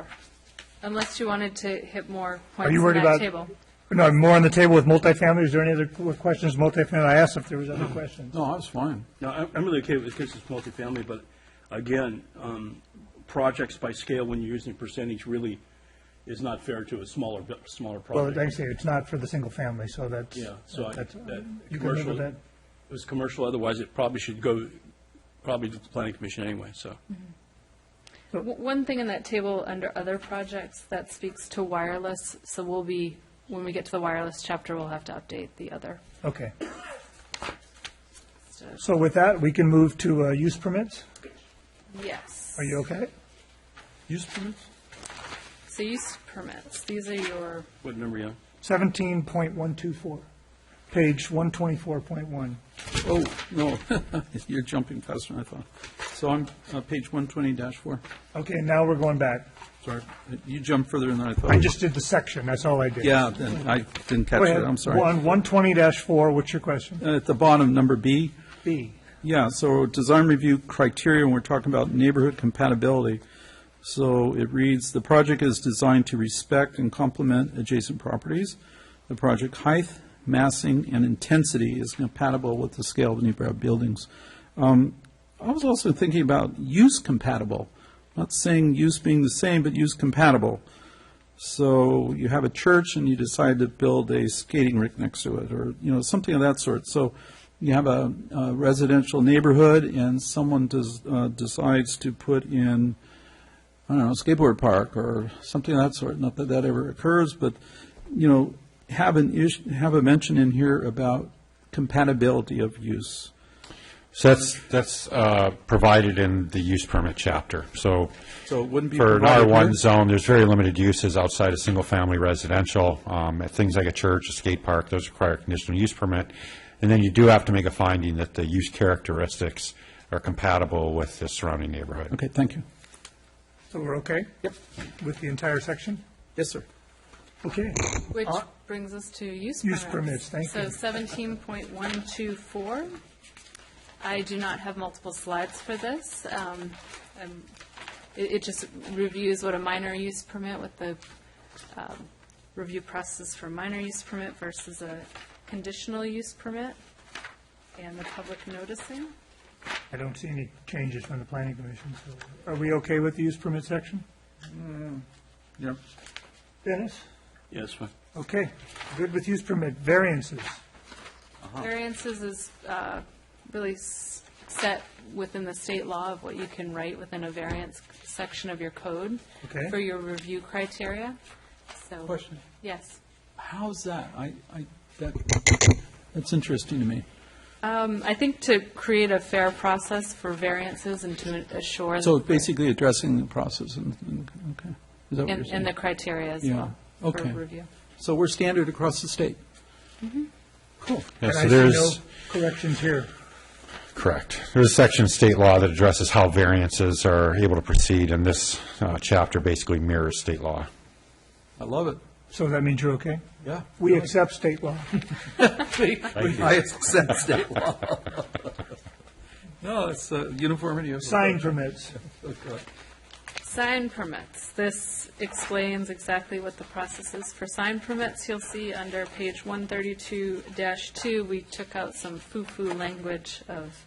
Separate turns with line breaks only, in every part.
before, unless you wanted to hit more points
you
in
worried
that
about-
table.
No, more on the table with multifamily, is there any other qu- questions, multifamily, I asked if there was other questions.
No, I was fine.
No, I'm I'm really okay with this because it's multifamily, but again, um, projects by scale, when you're using percentage, really is not fair to a smaller, bu- smaller
Well, like I
project.
say, it's not for the single family, so that's.
Yeah, so I-
that's-
that
You can live
commercial-
with that.
It was commercial, otherwise it probably should go, probably to the planning commission anyway, so.
Mm-hmm.
W- One thing in that table under other projects that speaks to wireless, so we'll be, when we get to the wireless chapter, we'll have to update the other.
Okay. So with that, we can move to uh, use permits.
Yes.
Are you okay?
Use permits?
So use permits, these are your,
What number, yeah?
17.124, page 124.1.
Oh, no, you're jumping faster than I thought. So I'm, uh, page one twenty four.
Okay, now we're going back.
Sorry, you jumped further than I thought.
I just did the section, that's all I did.
Yeah, then I didn't catch
Go
it,
ahead.
I'm sorry.
On 120-4, what's your question?
Uh, At the bottom, number B,
B.
yeah, so design review criteria, and we're talking about neighborhood compatibility. So it reads, "The project is designed to respect and complement adjacent properties. The project height, massing, and intensity is compatible with the scale of neighborhood buildings." Um, I was also thinking about use compatible, not saying use being the same, but use compatible. So you have a church and you decide to build a skating rink next to it, or, you know, something of that sort. So you have a, a residential neighborhood and someone does, uh, decides to put in, I don't know, skateboard park or something of that sort. Not that that ever occurs, but, you know, have an issue, have a mention in here about compatibility of use.
So that's, that's uh, provided in the use permit chapter. So
So it wouldn't be
for an
provided
R1
here?
zone, there's very limited uses outside of single-family residential. Um, Things like a church, a skate park, those require a conditional use permit. And then you do have to make a finding that the use characteristics are compatible with the surrounding neighborhood.
Okay, thank you.
So we're okay? Yep. With the entire section?
Yes, sir.
Okay.
which brings us to use permits.
Use permits, thank you.
So 17.124, I do not have multiple slides for this. Um, um, It it just reviews what a minor use permit, what the um, review process for minor use permit versus a conditional use permit, and the public noticing.
I don't see any changes from the planning commission. so- Are we okay with the use permit section?
Yep.
Dennis?
Yes, fine.
Okay, good with use permit. Variances,
Oh.
Variances is uh, really s- set within the state law of what you can write within a variance section of your code
Okay.
for your review criteria, so.
Question.
Yes.
How's that? I, I, that, that's interesting to me.
Um, I think to create a fair process for variances and to assure.
So basically addressing the process and, and, okay. Is that what you're
And and the
saying?
criteria as
Yeah.
well. For
Okay.
review.
So we're standard across the state? Cool.
Yeah,
and
so
I see
there's-
no corrections here.
Correct. There's a section of state law that addresses how variances are able to proceed, and this uh, chapter basically mirrors state law.
I love it.
So that means you're okay?
Yeah.
We accept state law.
I accept state law. No, it's uh, uniformity of.
Sign permits.
Sign permits. This explains exactly what the process is for sign permits. You'll see under page 132-2, we took out some foo-foo language of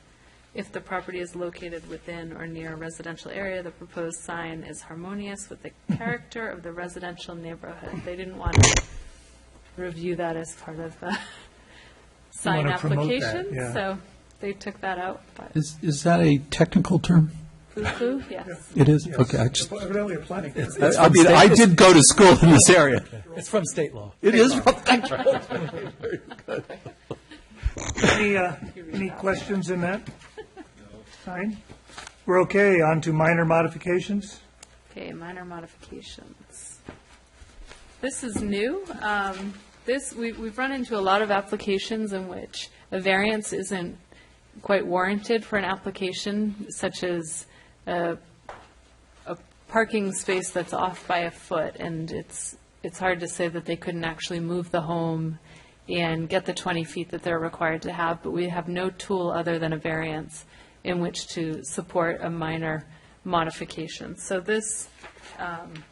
if the property is located within or near a residential area, the proposed sign is harmonious with the character of the residential neighborhood. They didn't want to review that as part of the sign
wanna promote that,
application,
yeah.
so they took that out, but
Is, is that a technical term?
foo-foo, yes.
It is? Okay, I just,
Evidently a planning.
I I mean, I did go to school in this area.
It's from state law.
It is.
Any, uh, any questions in that? Sign? We're okay, on to minor modifications.
Okay, minor modifications. This is new. Um, This, we- we've run into a lot of applications in which a variance isn't quite warranted for an application, such as a a parking space that's off by a foot, and it's, it's hard to say that they couldn't actually move the home and get the 20 feet that they're required to have, but we have no tool other than a variance in which to support a minor modification. So this um,